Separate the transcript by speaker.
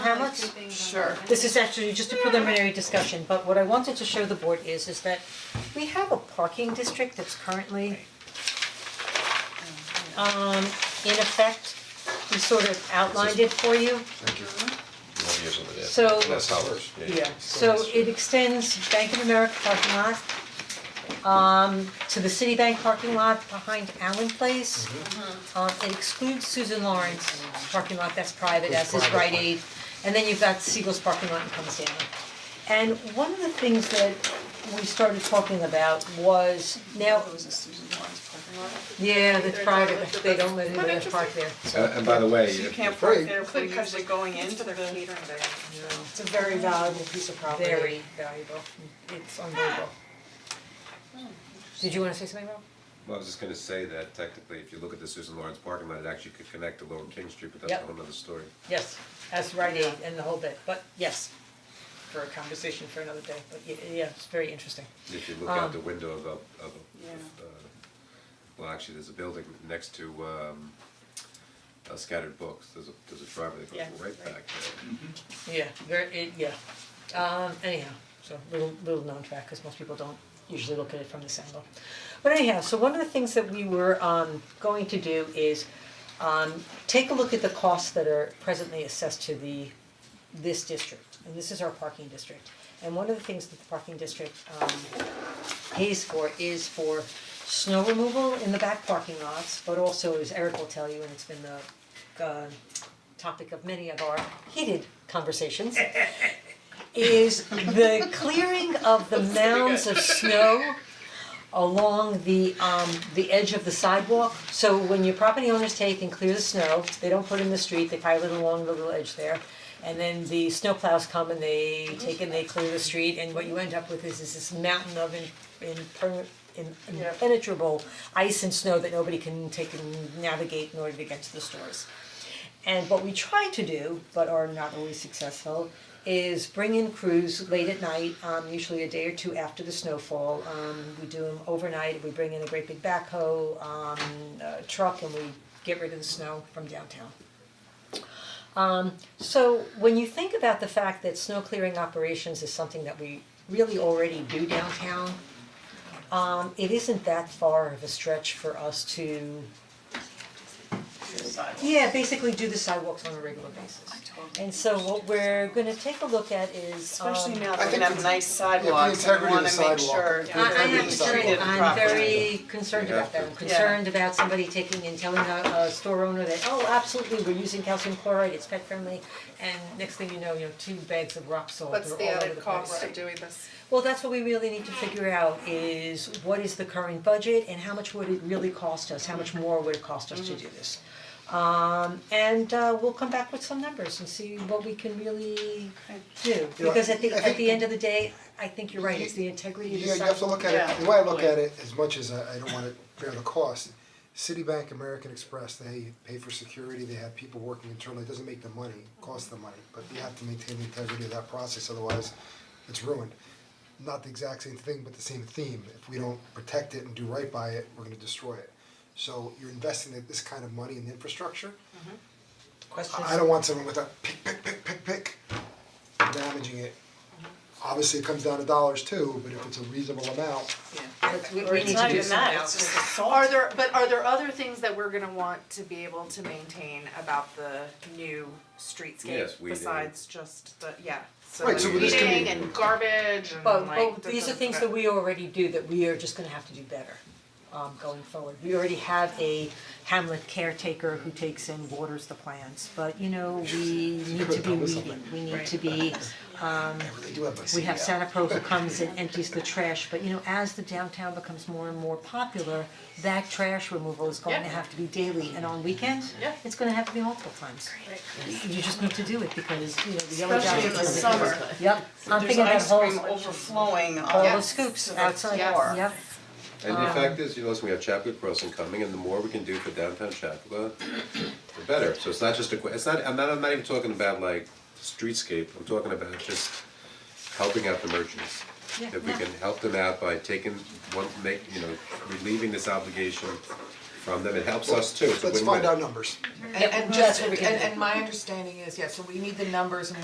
Speaker 1: how much?
Speaker 2: Sure.
Speaker 1: This is actually just a preliminary discussion, but what I wanted to show the board is, is that we have a parking district that's currently um, in effect, we sort of outlined it for you.
Speaker 3: Nobody is over there.
Speaker 1: So-
Speaker 3: That's Howard's, yeah.
Speaker 1: So it extends Bank of America parking lot, um, to the Citibank parking lot behind Allen Place. Um, it excludes Susan Lawrence parking lot, that's private, as is Rite Aid, and then you've got Siegel's parking lot and comes down. And one of the things that we started talking about was now,
Speaker 2: It was a Susan Lawrence parking lot.
Speaker 1: yeah, the private, they don't let anybody park there.
Speaker 4: And and by the way,
Speaker 2: You
Speaker 4: if
Speaker 2: can't
Speaker 4: you're
Speaker 2: park
Speaker 4: free,
Speaker 2: there, we're usually going into the.
Speaker 5: It's a very valuable piece of property.
Speaker 1: Very.
Speaker 5: valuable.
Speaker 1: It's unbelievable. Did you wanna say something, Rob?
Speaker 4: well, I was just gonna say that technically, if you look at the Susan Lawrence parking lot, it actually could connect to Lower King Street, but that's
Speaker 1: Yep.
Speaker 4: a whole nother story.
Speaker 1: Yes, as Rite Aid and the whole bit, but yes, for a conversation for another day, but yeah, yeah, it's very interesting.
Speaker 4: If you look out
Speaker 1: Um,
Speaker 4: the window of a, of a, of, uh, well, actually, there's a building next to, um, uh, Scattered Books, there's a, there's a driveway that
Speaker 2: Yeah,
Speaker 4: goes right
Speaker 2: right.
Speaker 4: back there.
Speaker 1: Yeah, very, it, yeah, um, anyhow, so little, little known fact, cause most people don't usually look at it from this angle. But anyhow, so one of the things that we were, um, going to do is, um, take a look at the costs that are presently assessed to the, this district, and this is our parking district. And one of the things that the parking district, um, pays for is for snow removal in the back parking lots, but also, as Eric will tell you, and it's been the uh topic of many of our heated conversations, is the clearing of the mounds of snow along the um the edge of the sidewalk. So when your property owners take and clear the snow, they don't put it in the street, they pile it along the little edge there. And then the snowplows come and they take and they clear the street and what you end up with is is this mountain of in imper- in- impenetrable ice and snow that nobody can take and navigate in order to get to the stores. And what we try to do, but are not always successful, is bring in crews late at night, um, usually a day or two after the snowfall. Um, we do them overnight, we bring in a great big backhoe, um, a truck, and we get rid of the snow from downtown. Um, so when you think about the fact that snow clearing operations is something that we really already do downtown, um, it isn't that far of a stretch for us to yeah, basically do the sidewalks on a regular basis. And so what we're gonna take a look at is, um,
Speaker 2: Especially now
Speaker 6: I
Speaker 2: that we
Speaker 6: think
Speaker 2: have nice sidewalks, we
Speaker 6: integrity
Speaker 2: wanna
Speaker 6: of the
Speaker 2: make
Speaker 6: sidewalk,
Speaker 2: sure
Speaker 6: the
Speaker 1: I I
Speaker 2: that
Speaker 6: integrity
Speaker 1: am
Speaker 6: of
Speaker 2: it's
Speaker 6: the
Speaker 1: very,
Speaker 2: treated properly.
Speaker 1: I'm very concerned
Speaker 4: You
Speaker 1: about
Speaker 4: have
Speaker 1: that,
Speaker 4: to.
Speaker 1: I'm concerned about somebody taking and telling a a store owner that, oh, absolutely, we're using calcium chloride, it's pet friendly. And next thing you know, you know, two bags of rock salt are all over
Speaker 2: What's
Speaker 1: the
Speaker 2: the
Speaker 1: place.
Speaker 2: added cost of doing this?
Speaker 1: Well, that's what we really need to figure out is what is the current budget and how much would it really cost us, how much more would it cost us to do this? Um and uh we'll come back with some numbers and see what we can really do, because at the
Speaker 6: I
Speaker 1: at the
Speaker 6: think-
Speaker 1: end of the day, I think you're right, it's the integrity of the
Speaker 6: Yeah, you have to
Speaker 1: sidewalk.
Speaker 6: look at it, the way I look at it, as much as I I don't wanna bear the cost, Citibank, American Express, they pay for security, they have people working internally, it doesn't make them money, it costs them money, but you have to maintain the integrity of that process, otherwise it's ruined. Not the exact same thing, but the same theme, if we don't protect it and do right by it, we're gonna destroy it. So you're investing this kind of money in the infrastructure,
Speaker 1: Questions?
Speaker 6: I I don't want someone with a pick, pick, pick, pick, pick, damaging it. Obviously, it comes down to dollars too, but if it's a reasonable amount,
Speaker 1: Let's- we- we need to do something else.
Speaker 2: Are there, but are there other things that we're gonna want to be able to maintain about the new streetscape
Speaker 4: Yes, weeding.
Speaker 2: besides just the, yeah, so
Speaker 6: Right, so this can be-
Speaker 2: weeding and garbage and
Speaker 1: But
Speaker 2: like.
Speaker 1: but
Speaker 2: the-
Speaker 1: these are
Speaker 2: the-
Speaker 1: things that we already do that we are just gonna have to do better um going forward. We already have a Hamlet caretaker who takes and waters the plants, but you know, we need to be weeding, we need to be um
Speaker 6: they do have a
Speaker 1: we have
Speaker 6: CDL.
Speaker 1: Santa Pro who comes and empties the trash, but you know, as the downtown becomes more and more popular, that trash removal is going to
Speaker 2: Yeah.
Speaker 1: have to be daily and on weekends,
Speaker 2: Yeah.
Speaker 1: it's gonna have to be multiple times. You just need to do it because, you know, the yellow
Speaker 7: Especially in
Speaker 1: jackets
Speaker 7: the
Speaker 1: are ridiculous.
Speaker 7: summer.
Speaker 1: Yep, I'm
Speaker 7: There's
Speaker 1: thinking that
Speaker 7: ice
Speaker 1: whole
Speaker 7: cream overflowing
Speaker 1: all
Speaker 7: on
Speaker 1: those scoops
Speaker 7: the
Speaker 1: outside,
Speaker 7: floor.
Speaker 1: yep,
Speaker 4: And
Speaker 1: Um,
Speaker 4: the fact is, you know, listen, we have Chapua Crossing coming, and the more we can do for downtown Chapua, the better. So it's not just a, que- it's not, I'm not, I'm not even talking about like streetscape, I'm talking about just helping out the merchants. If we
Speaker 1: Yeah.
Speaker 4: can help them out by taking, one, make, you know, relieving this obligation from them, it helps us too, it's a
Speaker 6: let's
Speaker 4: win-win.
Speaker 6: find out numbers.
Speaker 5: And and
Speaker 1: that's what we
Speaker 5: and
Speaker 1: can do.
Speaker 5: and my understanding is, yeah, so we need the numbers and